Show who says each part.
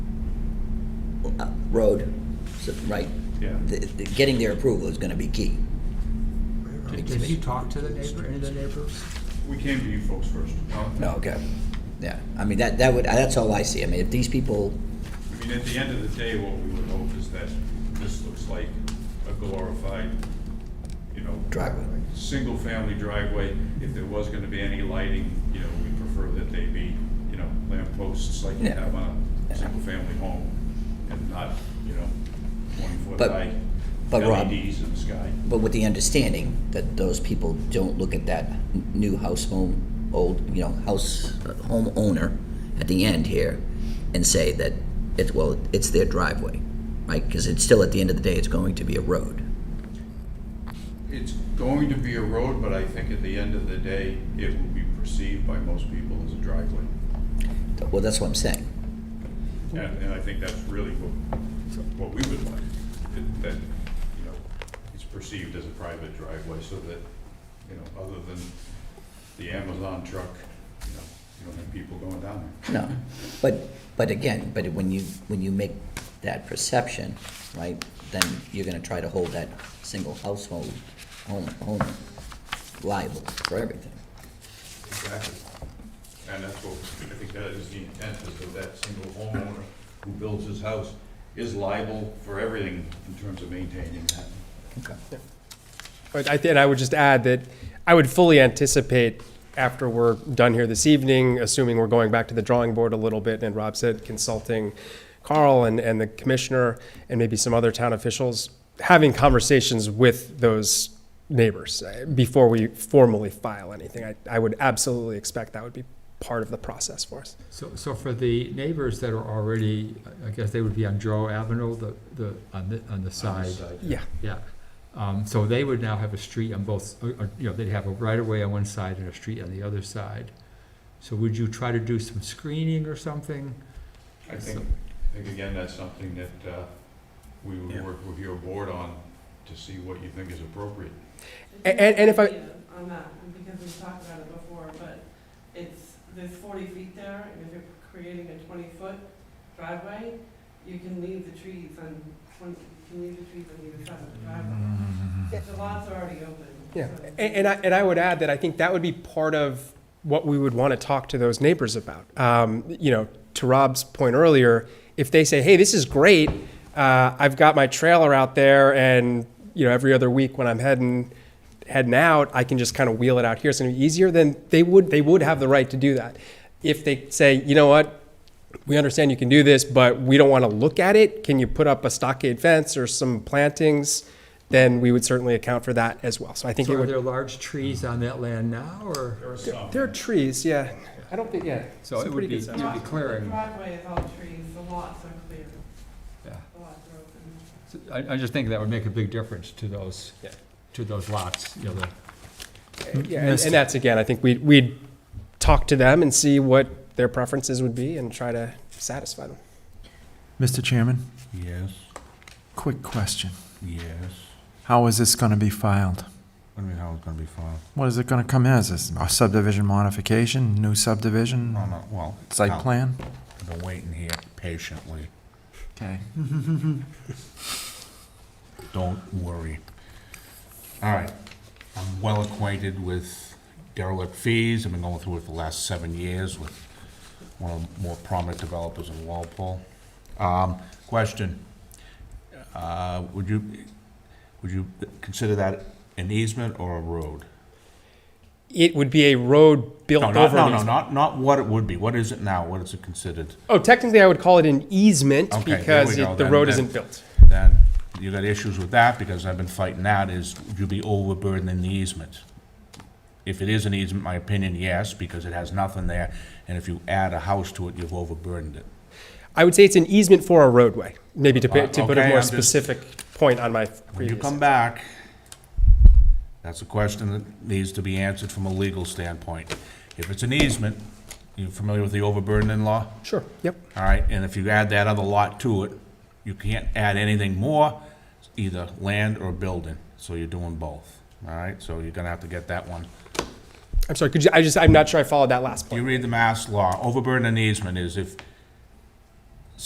Speaker 1: uh, road, so- right?
Speaker 2: Yeah.
Speaker 1: The- the- Getting their approval is gonna be key.
Speaker 3: Did you talk to the neighbor, any of the neighbors?
Speaker 2: We came to you folks first.
Speaker 1: No, okay, yeah, I mean, that, that would, that's all I see, I mean, if these people,
Speaker 2: I mean, at the end of the day, what we would hope is that this looks like a glorified, you know.
Speaker 1: Driveway.
Speaker 2: Single-family driveway. If there was gonna be any lighting, you know, we prefer that they be, you know, lamp posts like you
Speaker 1: Yeah.
Speaker 2: have on a single-family home and not, you know, twenty-foot
Speaker 1: But-
Speaker 2: high
Speaker 1: but Rob-
Speaker 2: LEDs in the sky.
Speaker 1: but with the understanding that those people don't look at that n- new house home, old, you know, house, uh, homeowner at the end here and say that it's, well, it's their driveway, right? Because it's still, at the end of the day, it's going to be a road.
Speaker 2: It's going to be a road, but I think at the end of the day, it will be perceived by most people as a driveway.
Speaker 1: Well, that's what I'm saying.
Speaker 2: And, and I think that's really what, what we would like, that- that, you know, it's perceived as a private driveway so that, you know, other than the Amazon truck, you know, you don't have people going down there.
Speaker 1: No, but, but again, but when you, when you make that perception, right, then you're gonna try to hold that single household, home, home liable for everything.
Speaker 2: Exactly. And that's what, I think that is the intent, is that that single homeowner who builds his house is liable for everything in terms of maintaining that.
Speaker 1: Okay.
Speaker 4: But I, and I would just add that I would fully anticipate after we're done here this evening, assuming we're going back to the drawing board a little bit, and Rob said consulting Carl and, and the commissioner and maybe some other town officials, having conversations with those neighbors uh, before we formally file anything. I, I would absolutely expect that would be part of the process for us.
Speaker 3: So, so for the neighbors that are already, I guess they would be on Joe Avenue, the, the, on the, on the side,
Speaker 4: Yeah.
Speaker 3: yeah. Um, so they would now have a street on both, or, or, you know, they'd have a right of way on one side and a street on the other side. So would you try to do some screening or something?
Speaker 2: I think, I think again, that's something that uh, we would work with your board on to see what you think is appropriate.
Speaker 4: A- and- and if I-
Speaker 5: On that, because we've talked about it before, but it's, there's forty feet there, and if you're creating a twenty-foot driveway, you can leave the trees on, twenty you can leave the trees on either side of the driveway.
Speaker 3: Mm-hmm.
Speaker 5: The lots are already open.
Speaker 4: Yeah,
Speaker 5: so-
Speaker 4: A- and I, and I would add that I think that would be part of what we would want to talk to those neighbors about. Um, you know, to Rob's point earlier, if they say, hey, this is great, uh, I've got my trailer out there and, you know, every other week when I'm heading, heading out, I can just kind of wheel it out here, it's gonna be easier, then they would, they would have the right to do that. If they say, you know what, we understand you can do this, but we don't want to look at it. Can you put up a stockade fence or some plantings? Then we would certainly account for that as well. So I think it
Speaker 3: So are
Speaker 4: would.
Speaker 3: there large trees on that land now, or?
Speaker 2: There are some.
Speaker 4: There are trees, yeah. I don't think, yeah.
Speaker 3: So
Speaker 4: It's a
Speaker 3: it would
Speaker 4: pretty
Speaker 3: be,
Speaker 4: good
Speaker 3: you'd
Speaker 4: size.
Speaker 3: be
Speaker 5: The
Speaker 3: clearing,
Speaker 5: driveway is all trees, the lots are clear,
Speaker 3: yeah.
Speaker 5: the lots are open.
Speaker 3: So I, I just think that would make a big difference to those,
Speaker 4: Yeah.
Speaker 3: to those lots, you know, the
Speaker 4: Yeah, and, and that's again, I think we'd, we'd talk to them and see what their preferences would be and try to satisfy them.
Speaker 6: Mr. Chairman,
Speaker 7: Yes,
Speaker 6: quick question.
Speaker 7: yes.
Speaker 6: How is this going to be filed?
Speaker 7: What do you mean how it's gonna be filed?
Speaker 6: What is it going to come as? Is a subdivision modification, new subdivision,
Speaker 7: No, no, well.
Speaker 6: site
Speaker 7: no,
Speaker 6: plan?
Speaker 7: I've been waiting here patiently.
Speaker 6: Okay.
Speaker 7: Don't worry. All right. I'm well acquainted with derelict fees. I've been going through it for the last seven years with one of the more prominent developers in Walpole. Um, question. Uh, would you, would you consider that an easement or a road?
Speaker 4: It would be a road built
Speaker 7: No, not,
Speaker 4: over.
Speaker 7: no,
Speaker 4: an
Speaker 7: no,
Speaker 4: easement.
Speaker 7: not, not what it would be. What is it now? What is it considered?
Speaker 4: Oh, technically I would call it an easement
Speaker 7: Okay, there
Speaker 4: because
Speaker 7: we go,
Speaker 4: it- the
Speaker 7: then-
Speaker 4: road
Speaker 7: then-
Speaker 4: isn't built.
Speaker 7: that you got issues with that, because I've been fighting that, is would you be overburdening the easement? If it is an easement, my opinion, yes, because it has nothing there, and if you add a house to it, you've overburdened it.
Speaker 4: I would say it's an easement for a roadway, maybe to, put- to put a
Speaker 7: Uh, okay,
Speaker 4: more
Speaker 7: I'm just-
Speaker 4: specific point on my previous.
Speaker 7: When you come back, that's a question that needs to be answered from a legal standpoint. If it's an easement, you familiar with the overburdening law?
Speaker 4: Sure, yep.
Speaker 7: All right, and if you add that other lot to it, you can't add anything more, either land or building, so you're doing both. All right, so you're gonna have to get that one.
Speaker 4: I'm sorry, could you, I just, I'm not sure I followed that last
Speaker 7: You
Speaker 4: point.
Speaker 7: read the mass law, overburden and easement is if